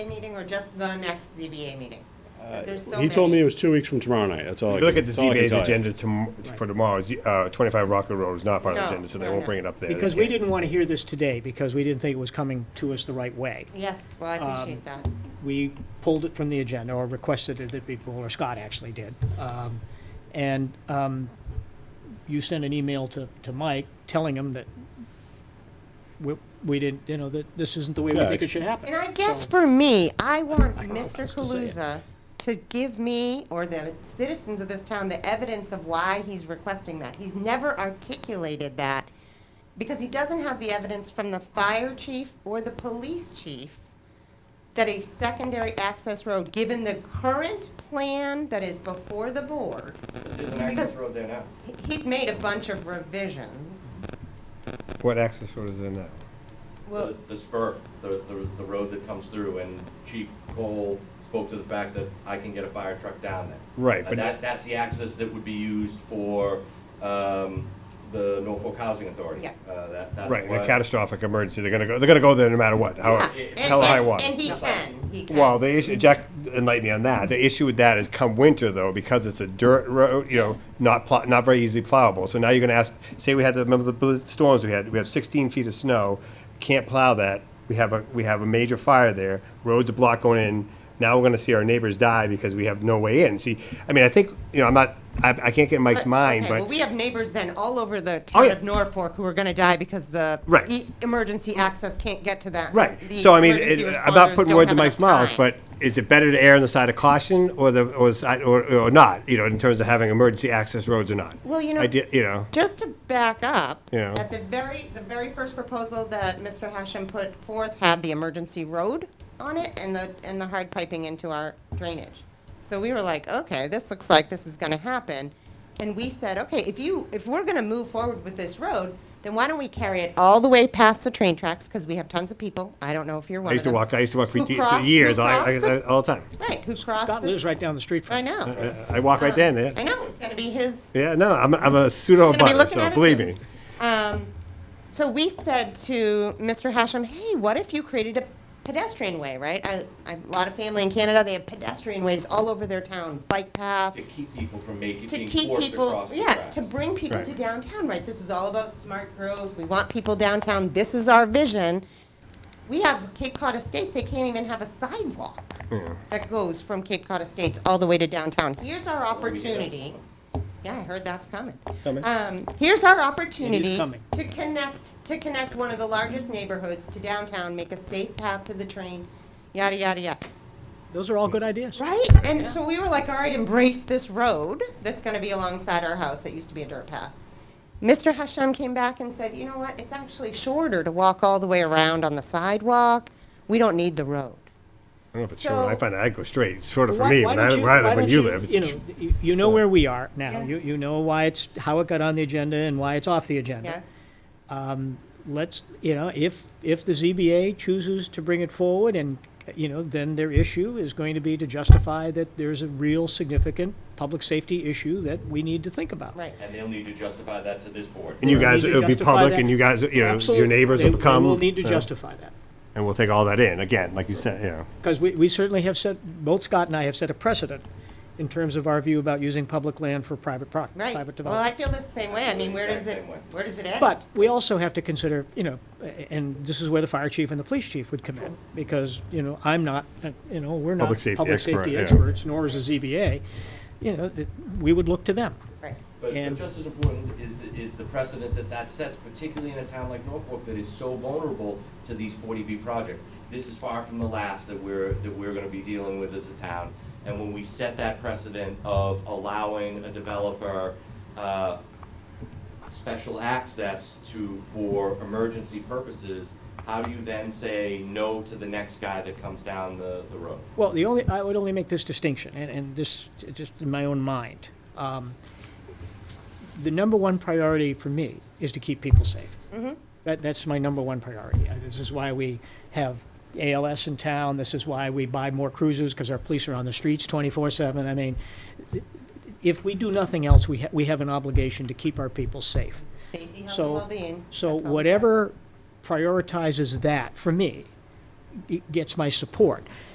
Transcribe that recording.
meeting or just the next ZBA meeting? 'Cause there's so Uh, He told me many. it was two weeks from tomorrow night, that's all I If can you look at the that's all I can ZBA's tell you. agenda tom- for tomorrow, Z- uh, 25 Rocket Road is not part of the No, agenda, so they no, won't no. bring it up there. They Because we can't. didn't want to hear this today, because we didn't think it was coming to us the right way. Yes, well, I appreciate Um, that. We pulled it from the agenda, or requested it that we pull, or Scott actually did. Um, And um, you sent an email to, to Mike telling him that we, we didn't, you know, that this isn't the way we Yeah, think it it's- should happen. And I guess So- for me, I want I'm not Mr. supposed to say Kaluza to give me or the citizens of this town the evidence of why he's requesting that. He's never articulated that because he doesn't have the evidence from the fire chief or the police chief that a secondary access road, given the current plan that is before the board, There's an Because- access road there now. he- he's made a bunch of revisions. What access road is there now? Well, The- The spur, the, the, the road that comes through, and Chief Cole spoke to the fact that I can get a fire truck down there. Right, And but- that, that's the access that would be used for, um, the Norfolk Housing Authority. Yeah. Uh, that, that's Right, in a what- catastrophic emergency, they're gonna go, they're gonna go there no matter what, how, yeah, and- hell or high and- water. And he can, he can. Well, the issue, Jack enlightened me on that. The issue with that is come winter though, because it's a dirt road, you know, not pl- not very easily plowable. So now you're gonna ask, say we had, to remember the bl- storms we had, we have sixteen feet of snow, can't plow that. We have a, we have a major fire there, roads are blocked going in. Now we're gonna see our neighbors die because we have no way in. See, I mean, I think, you know, I'm not, I, I can't get in Mike's But- mind, okay, but. well, we have neighbors then all over the Oh, town yeah. of Norfolk who are going to die because the Right. e- emergency access can't get to that. Right. The So I mean, it, emergency I'm not responders putting don't words in have enough Mike's mouth, time. but is it better to err on the side of caution or the or, the side, or, or not? You know, in terms of having emergency access roads or not. Well, you know- I did, you know, Just to back up, You know. at the very the very first proposal that Mr. Hashem put forth had the emergency road on it and the and the hard piping into our drainage. So we were like, okay, this looks like this is going to happen, and we said, okay, if you if we're going to move forward with this road, then why don't we carry it all the way past the train tracks because we have tons of people. I don't know if you're one. I used of to them. walk. I used to walk for, Who ye- for crossed- who years, I, I, crossed the- I- all the time. Right, who crossed Scott the- lives right down the street from I it. know. I walk right down there. I know, it's gonna be his, Yeah, no, I'm, I'm a pseudo You're gonna be butter, looking so at it believe too. me. um, so we said to Mr. Hashem, hey, what if you created a pedestrian way, right? I, I, a lot of family in Canada, they have pedestrian ways all over their town, bike To paths, keep people from making, to being keep forced people, across the yeah, tracks. to bring people Right. to downtown, right? This is all about smart growth, we want people downtown, this is our vision. We have Cape Cod Estates, they can't even have a sidewalk that goes from Cape Cod Estates all the way to downtown. Here's our we did that. opportunity. Yeah, I heard that's coming. Um, here's our opportunity coming. to connect, to connect one of the largest neighborhoods to downtown, make a safe path to the train, yada, yada, yada. Those are all good ideas. Right? And so we were like, all right, embrace this road that's going to be alongside our house that used to be a dirt path. Mr. Hashem came back and said, you know what? It's actually shorter to walk all the way around on the sidewalk. We don't need the road. I don't know if it's So- true. I find that I go straight, sort of for Why- me. why When don't I, you- where I why live, when don't you live, it's You know, you- you know where we are now. You, Yes. you know why it's, how it got on the agenda and why it's off the agenda. Yes? let's, you know, if, if the ZBA chooses to bring it forward and, you know, then their issue is going to be to justify that there's a real significant public safety issue that we need to think about. Right. And they'll need to justify that to this board. and you We guys, need to it'll be justify public, that. and you guys, you know, your Absolutely. neighbors They- will come. They will need to yeah, justify that. and we'll take all that in again, like you said. You know, Because we, we certainly have set, both Scott and I have set a precedent in terms of our view about using public land for private pro, Right. private Well, I development. feel the same way. I mean, where does it, Same way. where does it end? But we also have to consider, you know, a- and this is where the fire chief and the police chief would come in, because, you know, I'm not, uh, you know, we're not Public safety public expert, safety yeah. experts, nor is the ZBA. You know, that we would look to them. Right. But but And- just as important is, is the precedent that that sets, particularly in a town like Norfolk that is so vulnerable to these 40B projects. This is far from the last that we're, that we're gonna be dealing with as a town. And when we set that precedent of allowing a developer uh, special access to, for emergency purposes, how do you then say no to the next guy that comes down the, the road? Well, the only, I would only make this distinction, and, and this, just in my own mind. Um, The number one priority for me is to keep people safe. Mm-hmm. That, that's my number one priority. Uh, This is why we have ALS in town, this is why we buy more cruisers, because our police are on the streets twenty-four seven. I mean, if we do nothing else, we, ha- we have an obligation to keep our people safe. Safety, health, and So, well-being. so That's all. whatever prioritizes that, for me, it gets my support.